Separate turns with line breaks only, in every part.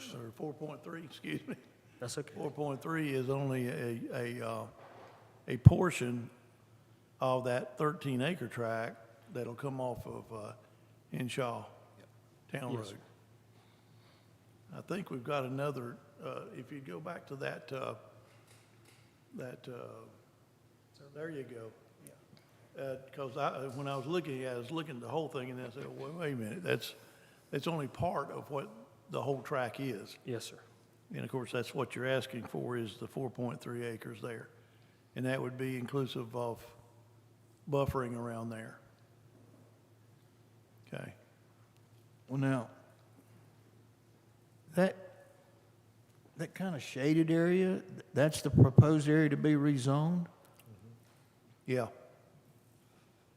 Sir, four point three, excuse me.
That's okay.
Four point three is only a, a, uh, a portion of that thirteen acre tract that'll come off of, uh, Henshaw Town
Yes, sir.
Road. I think we've got another, uh, if you go back to that, uh, that, uh, there you go. Uh, cause I, when I was looking, I was looking at the whole thing and I said, wait, wait a minute, that's, that's only part of what the whole track is.
Yes, sir.
And of course, that's what you're asking for is the four point three acres there. And that would be inclusive of buffering around there. Okay,
Well, now, that, that kind of shaded area, that's the proposed area to be rezoned?
yeah.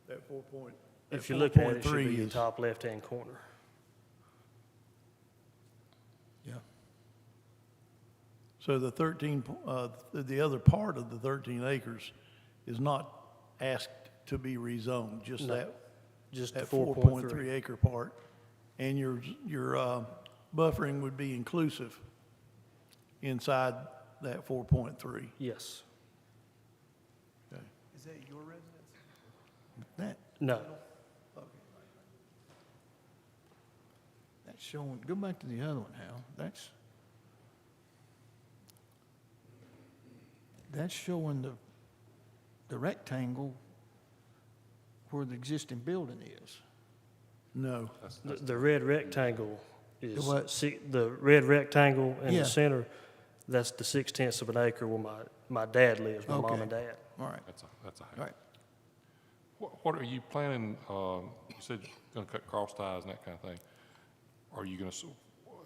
That four point.
If
that
you look at it, it should
4.3
be the
is-
top left-hand corner.
Yeah.
So the thirteen, po- uh, the- the other part of the thirteen acres is not asked to be rezoned, just
No,
that,
Just the
that
four
four
point three.
three acre part. And your, your, uh, buffering would be inclusive inside that four point three.
Yes.
Is that your residence?
That,
No.
that's showing, go back to the other one, Hal, that's, that's showing the, the rectangle where the existing building is.
No,
The, the red rectangle is,
The what?
si- the red rectangle in
Yeah.
the center, that's the six tenths of an acre where my, my dad lives, my mom
Okay.
and dad.
All right,
That's a, that's a
all
house.
right.
What, what are you planning, um, you said you're gonna cut cross ties and that kind of thing. Are you gonna, s-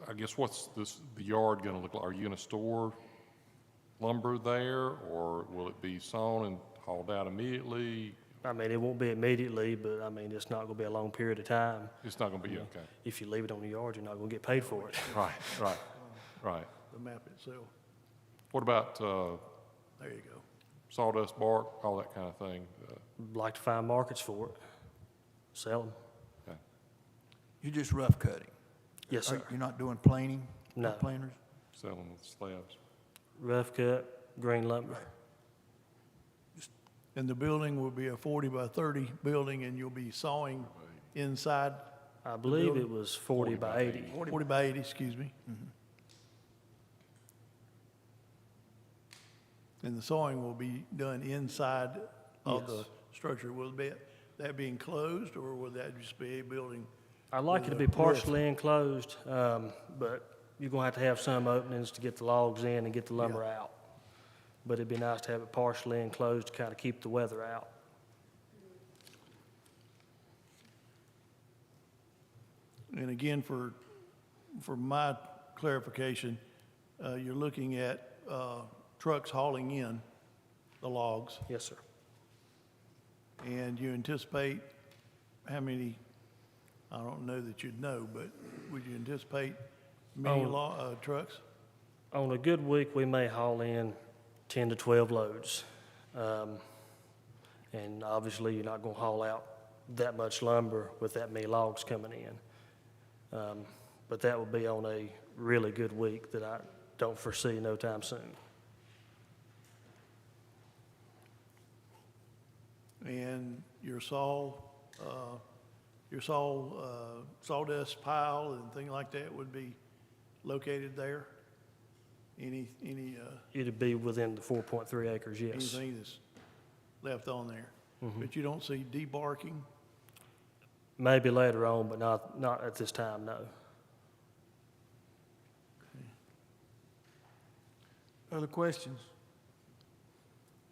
I guess what's this, the yard gonna look like? Are you gonna store lumber there, or will it be sawn and hauled out immediately?
I mean, it won't be immediately, but I mean, it's not gonna be a long period of time.
It's not gonna be, okay.
If you leave it on the yard, you're not gonna get paid for it.
Right, right, right.
the map itself,
What about, uh,
there you go.
sawdust, bark, all that kind of thing? Uh,
Like to find markets for it, sell them.
okay.
You're just rough cutting?
Yes,
Are-
sir.
You're not doing planing?
No.
Planers?
Sell them with slabs.
Rough cut, green lumber.
And the building will be a 40 by 30 building, and you'll be sawing inside,
I believe
building-
it was forty by eighty.
40 by 80, excuse me. Mm-hmm. And the sawing will be done inside of the
Yes.
structure. Will be, that be enclosed, or will that just be a building?
I like it to
with
be
a roof?
partially enclosed, um, but you're gonna have to have some openings to get the logs in and get the lumber out. But it'd be nice to have it partially enclosed to kind of keep the weather out.
And again, for, for my clarification, uh, you're looking at uh, trucks hauling in the logs.
Yes, sir.
And you anticipate how many, I don't know that you'd know, but would you anticipate many
Oh.
law, uh, trucks?
On a good week, we may haul in ten to twelve loads. Um, and obviously, you're not gonna haul out that much lumber with that many logs coming in. Um, but that would be on a really good week that I don't foresee no time soon.
And your saw, uh, your saw, uh, sawdust pile and thing like that would be located there? Any, any, uh,
It'd be within the four point three acres, yes.
anything that's left on there? But you don't see debarking?
Maybe later on, but not, not at this time, no.
Other questions?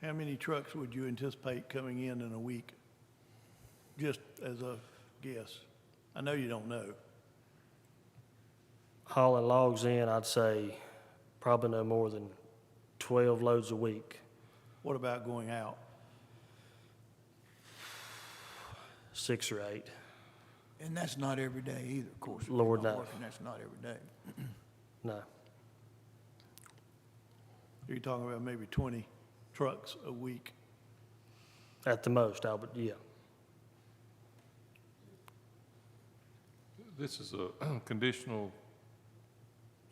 How many trucks would you anticipate coming in in a week? Just as a guess. I know you don't know.
Hauling logs in, I'd say probably no more than twelve loads a week,
What about going out?
six or eight.
And that's not every day either, of course. If you're
Lord,
not
no.
working, That's not every day.
No,
You're talking about maybe 20 trucks a week.
at the most, I would, yeah.
This is a conditional